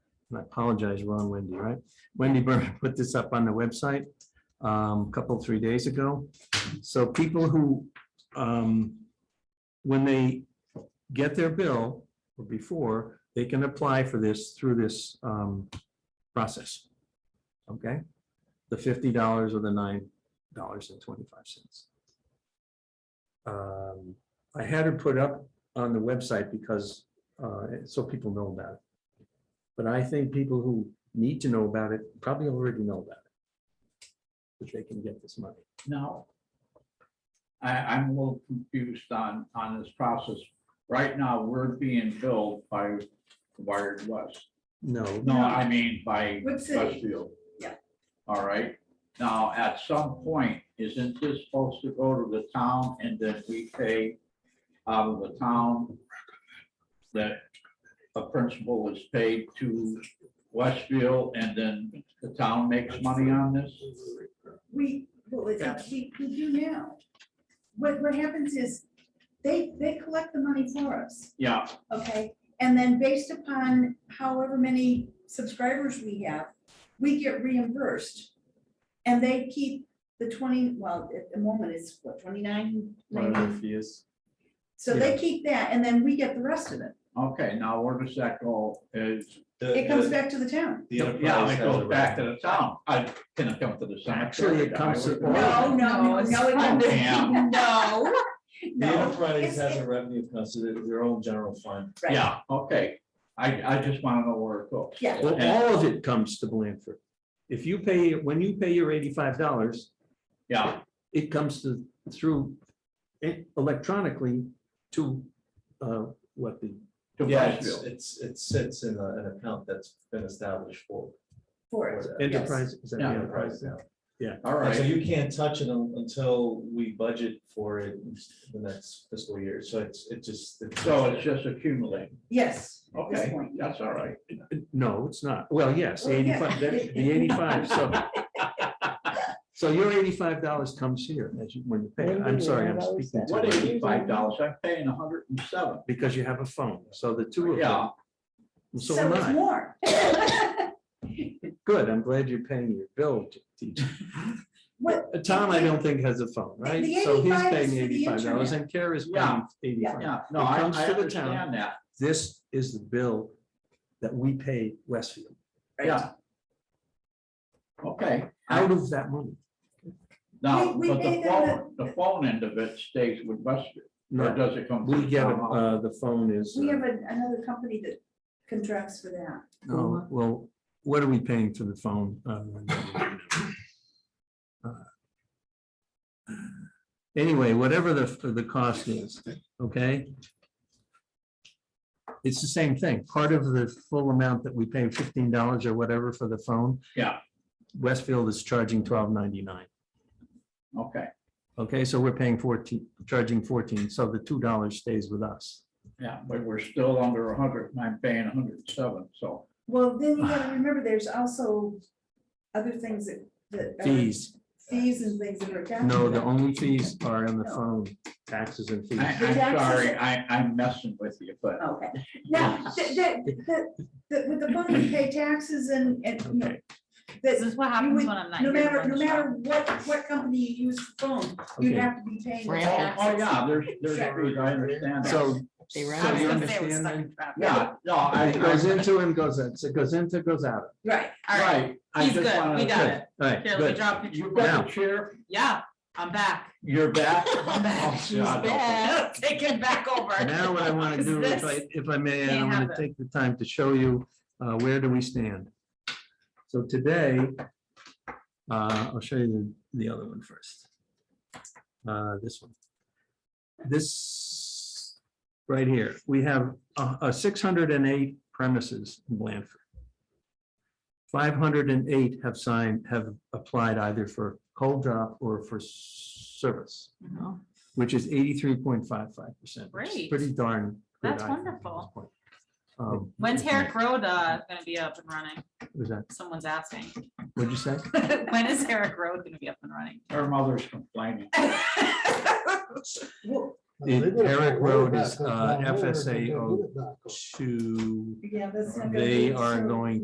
and I apologize, Ron Wendy, right? Wendy Byrne put this up on the website um, a couple, three days ago. So people who, um, when they get their bill or before, they can apply for this through this um, process. Okay? The fifty dollars or the nine dollars and twenty-five cents. Um, I had it put up on the website because, uh, so people know about it. But I think people who need to know about it probably already know about it. That they can get this money. Now, I, I'm a little confused on, on this process. Right now, we're being billed by Wired West. No, No, I mean by Wood City. Westfield. Yeah. All right. Now, at some point, isn't this supposed to go to the town and then we pay out of the town that a principal is paid to Westfield and then the town makes money on this? We, what was that? We, we do now. What, what happens is, they, they collect the money for us, Yeah, okay? And then based upon however many subscribers we have, we get reimbursed. And they keep the twenty, well, at the moment it's what, twenty-nine? whatever fee is. So they keep that, and then we get the rest of it. Okay, now where does that go? Is, The- It comes the- back to the town. The yeah, enterprise it has a goes back to right. the town. I can it come to the cemetery. Actually, it comes to- No, no, it's no, it fine. comes- Damn. No. The No, enterprise it's- has a revenue considered their own general fund. right. Yeah, okay. I, I just want to know where it goes. Yeah. Well, all of it comes to Blanford. If you pay, when you pay your eighty-five dollars, Yeah, it comes to, through it electronically to, uh, what the, to Yeah, it's- Westfield. it's, it sits in a- an account that's been established for. For for it, that enterprise. is that the Yeah. Enterprise now. All And So right. you can't touch it un- until we budget for it in the next fiscal year, so it's, it just. So it's just accumulating. yes. at this Okay, point. that's all right. No, it's not. Well, yes, Well, yeah. eighty-five, that- the eighty-five, so. So your eighty-five dollars comes here as you, when you pay. it. I'm sorry, I'm speaking What to you eighty-five dollars? I'm paying a hundred and seven. because you have a phone. So the two of Yeah. them. So am it's I. more. Good. I'm glad you're paying your bill, teacher. What, Uh, Tom, I don't think has a phone, The- right? the So he's 85 is paying for the the eighty-five dollars internet. and Kara's paying Yeah. eighty-five. Yeah, no, It I, I comes to the town. understand that. This is the bill that we pay Westfield Yeah. Okay. out of that money. Now, We- we but the pay them phone, the phone end of it stays with Westfield. Or No, does it come? to we the get, it, town hall? uh, the phone is. we uh, have a- another company that contracts for that. Oh, well, what are we paying for the phone? Uh, uh, Anyway, whatever the, the cost is, okay? It's the same thing. Part of the full amount that we pay fifteen dollars or whatever for the phone. Yeah. Westfield is charging $12.99. uh, Okay, Okay, so we're paying fourteen, charging fourteen, so the two dollars stays with us. yeah, but we're still under a hundred, and I'm paying a hundred and seven, so. Well, then you gotta remember, there's also other things that, that. are- Fees, Fees and things that are. attached no, to the that. only fees are on the phone, taxes and fees. I, I'm sorry, I, I'm messing with you, but Oh, Okay, now, that, that, that- that with the money, you pay taxes and, and, you know, Okay, This that, is what You happens would- when I'm not. no here to matter, run no the show. matter what, what company you use for phone, you'd Okay. have to be paying. the Brand Oh, tax. oh, yeah, there's, there's, Sure. rules, I understand. that. so. They were. so I was you gonna say it was understand stuck then? in traffic. Yeah, no, I, It goes I, into and goes out, so it goes into, goes out. Right, All right, right. I he's just good, we wanted to got Good. it. All right, Here, let me good. draw a say, picture. You've got Now. the chair, Yeah, I'm back. you're back. I'm back. Oh, God. Take it back over. Now what I want to 'Cause do, if this- I, if I may, I can't want to happen. take the time to show you, uh, where do we stand? So today, uh, I'll show you the, the other one first. Uh, this one. This, right here, we have a, a six hundred and eight premises in Blandford. Five hundred and eight have signed, have applied either for cold drop or for service. Mhm. which is eighty-three point five five percent. Great. Pretty darn. good, That's I think, at this wonderful. point. Um, When's Herrick Road uh, gonna be up and running? Was that, Someone's asking. what'd you say? When is Herrick Road gonna be up and running? Her mother's complaining. well, The Herrick Road is uh, FSA 02. yeah, that's. not gonna be They a are service. going